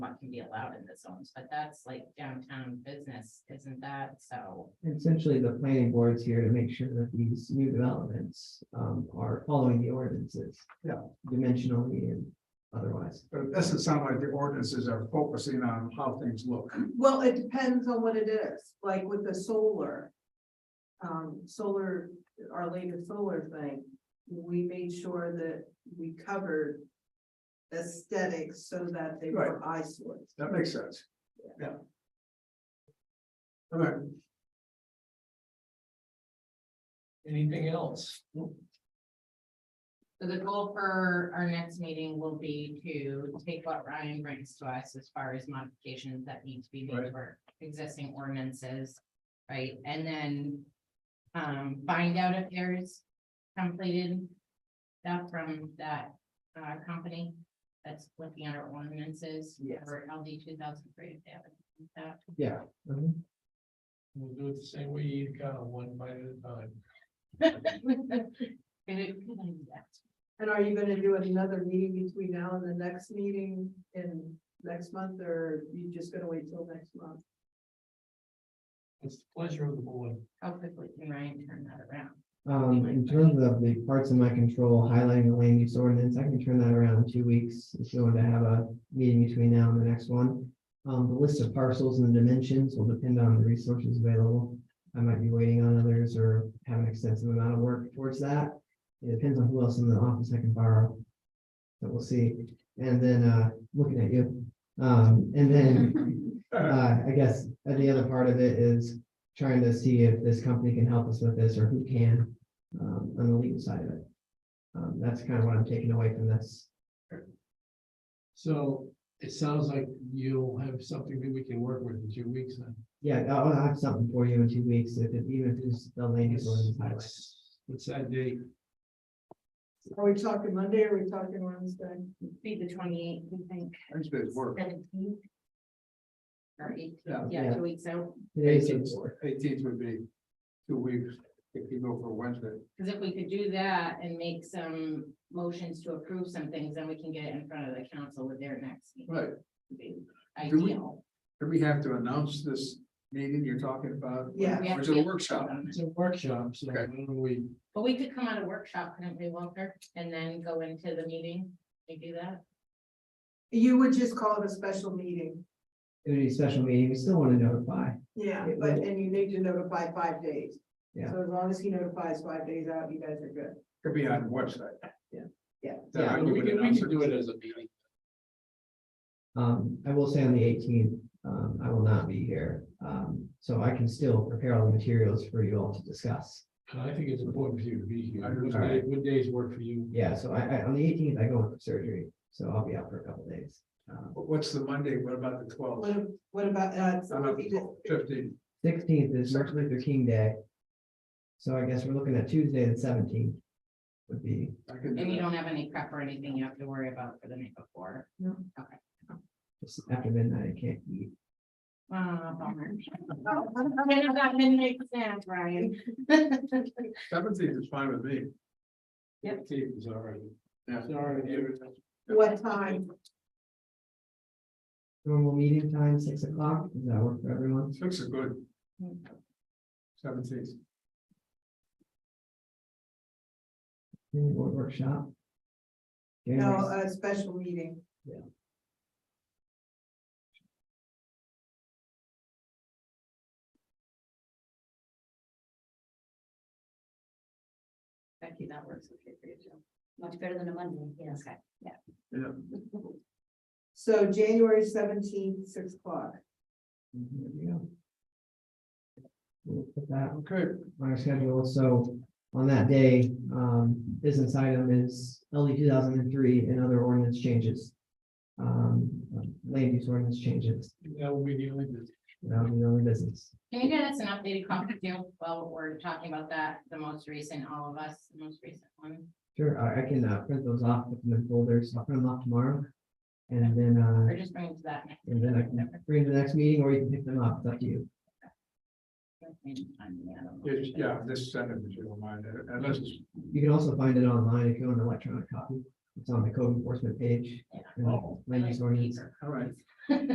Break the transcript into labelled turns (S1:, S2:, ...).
S1: what can be allowed in the zones, but that's like downtown business, isn't that? So,
S2: Essentially, the planning board's here to make sure that these new developments um are following the ordinances.
S3: Yeah.
S2: Dimensionally and otherwise.
S3: But it doesn't sound like the ordinances are focusing on how things look.
S4: Well, it depends on what it is, like with the solar. Um, solar, our latest solar thing, we made sure that we covered. Aesthetics so that they were eyesores.
S3: That makes sense. Yeah. All right. Anything else?
S1: so the goal for our next meeting will be to take what Ryan brings to us as far as modifications that need to be made
S3: Right.
S1: to our existing ordinances. Right, and then, um, find out if there's completed stuff from that, uh, company that's looking at our ordinances.
S2: Yes.
S1: For LD two thousand three, if they have anything like that.
S2: Yeah. Mhm.
S5: We'll do it the same way you eat kind of one bite at a time.
S4: And are you gonna do another meeting between now and the next meeting in next month, or you just gonna wait till next month?
S5: It's the pleasure of the board.
S1: How quickly can Ryan turn that around?
S2: Um, in terms of the parts in my control, highlighting the land use ordinance, I can turn that around in two weeks. If you want to have a meeting between now and the next one. Um, the list of parcels and the dimensions will depend on the resources available. I might be waiting on others or have an extensive amount of work towards that. It depends on who else in the office I can borrow. But we'll see. And then, uh, looking at you, um, and then uh, I guess, uh, the other part of it is trying to see if this company can help us with this or who can, um, on the legal side of it. Um, that's kind of what I'm taking away from this.
S5: So it sounds like you'll have something that we can work with in two weeks then.
S2: Yeah, I'll, I'll have something for you in two weeks, if, it- even if it's the ladies.
S5: That's- What's that date?
S4: Are we talking Monday, or are we talking Wednesday?
S1: Be the twenty-eighth, we think,
S3: Thanks, Biz. Work.
S1: seventeenth. Or eight,
S3: Yeah.
S1: yeah, two weeks out,
S2: Today's the
S3: Eighteenth eighteenth would be two weeks if you go for Wednesday.
S1: because if we could do that and make some motions to approve some things, then we can get it in front of the council with their next meeting.
S3: Right.
S1: would be
S3: Do we-
S1: Ideal.
S3: Do we have to announce this meeting you're talking about?
S4: Yeah.
S1: We have
S3: Or is
S1: to
S3: it a
S1: get-
S3: workshop?
S5: It's a workshop, so
S3: Okay.
S5: when we,
S1: But we could come out of workshop, couldn't we, Walter, and then go into the meeting, we do that?
S4: You would just call it a special meeting,
S2: It would be a special meeting, we still want to notify,
S4: yeah, but, and you need to notify five days.
S2: Yeah.
S4: So as long as he notifies five days out, you guys are good.
S3: Could be on the website.
S2: Yeah.
S4: Yeah.
S3: Then I
S5: Yeah, we
S3: would
S5: can, we
S3: announce
S5: can do it as a meeting.
S2: um, I will say on the eighteenth, um, I will not be here. Um, so I can still prepare all the materials for you all to discuss.
S5: And I think it's important for you to be here.
S3: I agree.
S5: What day- What days work for you?
S2: Yeah, so I, I, on the eighteenth, I go in for surgery, so I'll be out for a couple days. Um,
S3: But What's the Monday? What about the
S4: What,
S3: twelfth?
S4: ab- what about, uh, so if he did-
S3: Fifteen.
S2: Sixteenth is Martin Luther King Day. So I guess we're looking at Tuesday the seventeenth would be,
S3: I can do
S1: And you
S3: that.
S1: don't have any prep or anything you have to worry about for the night before?
S2: just after midnight, I can't eat.
S1: Ah, bummer. Shouldn't have gotten in the exam, Ryan.
S3: Seventeenth is fine with me.
S1: Yep.
S5: Dave is all right.
S3: Yeah.
S5: Sorry, David.
S4: what time?
S2: Normal meeting time, six o'clock, does that work for everyone?
S3: Six is good. Seventeenth.
S2: Any board workshop?
S4: No,
S2: January-
S4: a special meeting.
S1: Becky, that works okay for you too. Much better than a Monday, yes.
S4: So January seventeenth, six o'clock.
S2: There we go. We'll put that
S3: Okay.
S2: on our schedule, so on that day, um, business item is LD two thousand and three and other ordinance changes. Um, land use ordinance changes,
S5: That will be the only business.
S2: that'll be the only business.
S1: Can you get us an updated copy too, while we're talking about that, the most recent, all of us, the most recent one?
S2: Sure, I, I can, uh, print those off, put them in folders, I'll print them off tomorrow. And then,
S1: Or
S2: uh,
S1: just bring it to that next.
S2: and then I can bring it to the next meeting, or you can pick them up, it's up to you.
S1: meeting? I mean, I don't know.
S3: Yes, Yeah, this Saturday, if you don't mind, uh, unless it's,
S2: You can also find it online if you want an electronic copy, it's on the code enforcement page.
S1: Yeah.
S2: and
S3: Oh.
S2: Land use ordinance,
S1: Paper.
S3: all right,